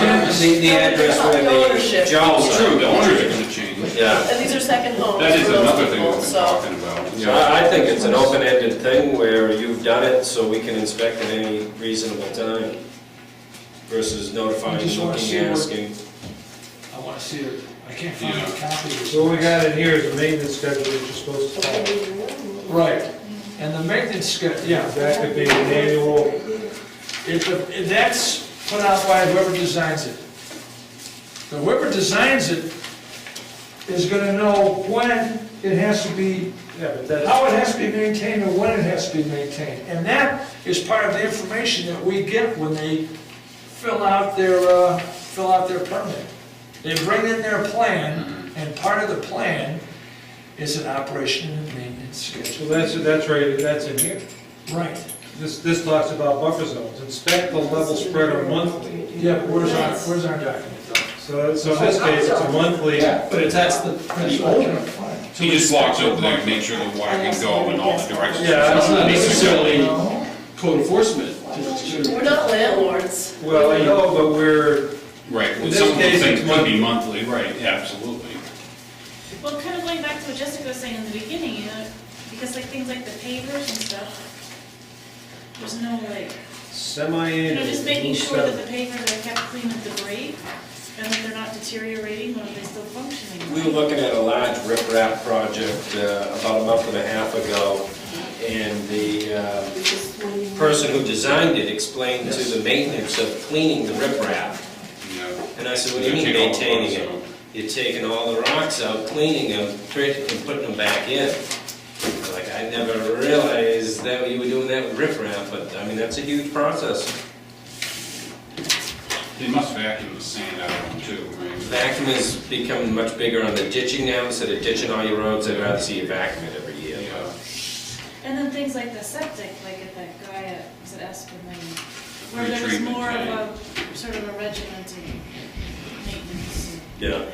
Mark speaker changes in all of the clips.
Speaker 1: the address where
Speaker 2: The ownership.
Speaker 1: the
Speaker 3: Oh,
Speaker 1: Jones
Speaker 3: true,
Speaker 1: are.
Speaker 3: the owners are gonna change.
Speaker 1: Yeah.
Speaker 2: And these are second homes.
Speaker 3: That is
Speaker 2: for those
Speaker 3: another thing
Speaker 2: people,
Speaker 3: we've been
Speaker 2: so-
Speaker 3: talking about.
Speaker 1: So
Speaker 3: Yeah,
Speaker 1: I I think it's an open-ended thing where you've done it so we can inspect at any reasonable time versus
Speaker 4: I
Speaker 1: notifying,
Speaker 4: just wanna
Speaker 1: looking,
Speaker 4: see what-
Speaker 1: asking.
Speaker 4: I wanna see it, I can't find a copy of this.
Speaker 5: So what we got in here is the maintenance schedule that you're supposed to follow.
Speaker 4: Right, and the maintenance schedule, yeah,
Speaker 5: That could be an annual,
Speaker 4: if, the- if that's put out by whoever designs it. But Whoever designs it is gonna know when it has to be,
Speaker 5: yeah, but that's,
Speaker 4: how it has to be maintained and when it has to be maintained. And that is part of the information that we get when they fill out their, uh, fill out their permit. They bring in their plan, and part of the plan is an operation and maintenance schedule.
Speaker 5: so that's, that's right, that's in here.
Speaker 4: Right.
Speaker 5: This, this talks about buffer zones, inspect the level spreader monthly.
Speaker 4: Yeah, but where's our, where's our document though?
Speaker 5: So, so in this case, it's a monthly,
Speaker 4: But it's, that's the, that's the
Speaker 3: he just walks over there and makes sure the water can go in all the directions.
Speaker 5: Yeah,
Speaker 6: That's not
Speaker 3: Basically,
Speaker 6: necessarily code enforcement. just-
Speaker 2: We're not landlords.
Speaker 5: well, I know, but we're,
Speaker 3: Right, well,
Speaker 5: In
Speaker 3: some of those
Speaker 5: this case,
Speaker 3: things
Speaker 5: it's
Speaker 3: could be monthly, right, yeah, absolutely.
Speaker 7: Well, kind of going back to what Jessica was saying in the beginning, you know, because like things like the pavers and stuff, there's no like, you
Speaker 5: semi-annual.
Speaker 7: know, just making sure that the pavers are kept clean of debris and that they're not deteriorating or they're still
Speaker 1: We
Speaker 7: functioning.
Speaker 1: were looking at a large riprap project uh, about a month and a half ago, and the uh, person who designed it explained to the maintenance of cleaning the riprap.
Speaker 3: Yeah.
Speaker 1: And I said, what do you mean
Speaker 3: They take all the
Speaker 1: maintaining
Speaker 3: bugs
Speaker 1: it? You're taking all the rocks out, cleaning them, tra- and putting them back in. Like, I never realized that you were doing that with riprap, but, I mean, that's a huge process.
Speaker 3: They must vacuum the sand out of them too, right?
Speaker 1: Vacuum is becoming much bigger on the ditching now, instead of ditching all your roads, I'd rather see you vacuum it every year.
Speaker 3: Yeah.
Speaker 7: And then things like the septic, like at that guy at, was it Esquimalt? Where there was
Speaker 3: Retreatment
Speaker 7: more of
Speaker 3: tank.
Speaker 7: a, sort of a regimented maintenance.
Speaker 1: Yeah.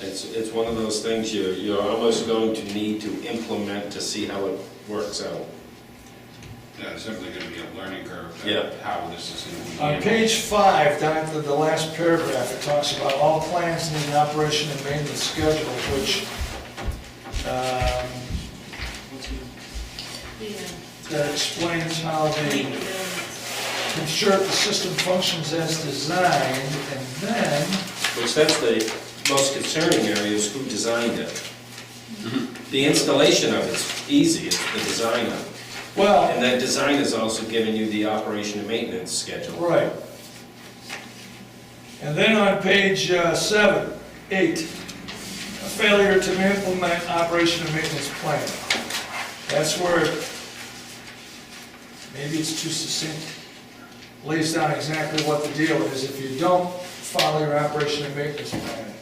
Speaker 1: It's, it's one of those things you're, you're almost going to need to implement to see how it works out.
Speaker 3: Yeah, it's definitely gonna be a learning curve,
Speaker 1: Yeah.
Speaker 3: that- how this is gonna be.
Speaker 4: On
Speaker 3: handled.
Speaker 4: page five, down to the last paragraph, it talks about all plans need an operation and maintenance schedule, which, um,
Speaker 7: Yeah.
Speaker 4: that explains how
Speaker 7: Clean the
Speaker 4: they
Speaker 7: buildings.
Speaker 4: ensure the system functions as designed, and then,
Speaker 1: Which that's the most concerning area is who designed it. The installation of it's easy, it's the design of it.
Speaker 4: well,
Speaker 1: And that design is also giving you the operation and maintenance schedule.
Speaker 4: right. And then on page uh, seven, eight, a failure to implement operation and maintenance plan. That's where, maybe it's too succinct, lays down exactly what the deal is if you don't follow your operation and maintenance plan.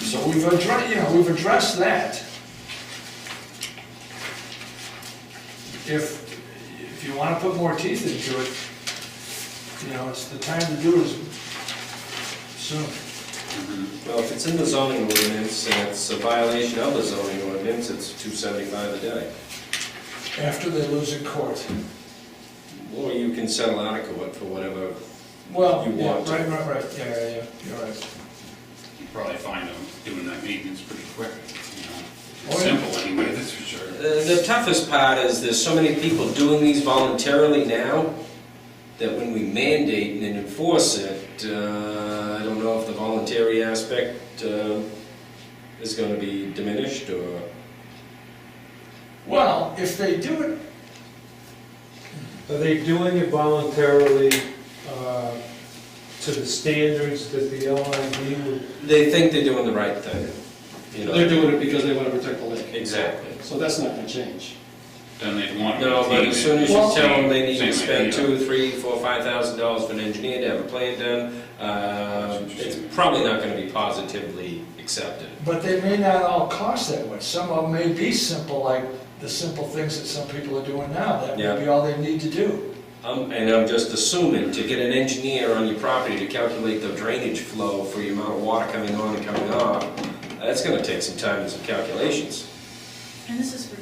Speaker 4: So we've addressed, you know, we've addressed that. If, if you wanna put more teeth into it, you know, it's the time to do it is soon.
Speaker 1: Well, if it's in the zoning ordinance and it's a violation of the zoning ordinance, it's two seventy-five a day.
Speaker 4: After they lose in court.
Speaker 1: Or you can settle out of court for whatever.
Speaker 4: Well,
Speaker 1: You
Speaker 4: yeah,
Speaker 1: want to.
Speaker 4: right, right, right, yeah, yeah, yeah, you're right.
Speaker 3: You probably find them doing that maintenance pretty quick, you know.
Speaker 4: Oh,
Speaker 3: It's
Speaker 4: yeah.
Speaker 3: Simple anyway, that's for sure.
Speaker 1: The the toughest part is there's so many people doing these voluntarily now that when we mandate and then enforce it, uh, I don't know if the voluntary aspect uh, is going to be diminished or...
Speaker 4: Well, if they do it,
Speaker 5: Are they doing it voluntarily, uh, to the standards that the LID would
Speaker 1: They think they're doing the right thing, you
Speaker 6: They're
Speaker 1: know?
Speaker 6: doing it because they want to protect the lake.
Speaker 1: Exactly.
Speaker 6: So that's not going to change.
Speaker 3: Then they'd want. to
Speaker 1: No, but
Speaker 3: retain
Speaker 1: as
Speaker 3: it.
Speaker 1: soon as you
Speaker 3: Well-
Speaker 1: tell them they need
Speaker 3: Same
Speaker 1: to spend
Speaker 3: idea.
Speaker 1: two, three, four, five thousand dollars for an engineer to have a plan done, uh, it's probably not going to be positively accepted.
Speaker 4: but they may not all cost that much. Some of them may be simple, like the simple things that some people are doing now. That
Speaker 1: Yeah.
Speaker 4: may be all they need to do.
Speaker 1: Um, and I'm just assuming to get an engineer on your property to calculate the drainage flow for the amount of water coming on and coming off, that's gonna take some time and some calculations.
Speaker 7: And this is for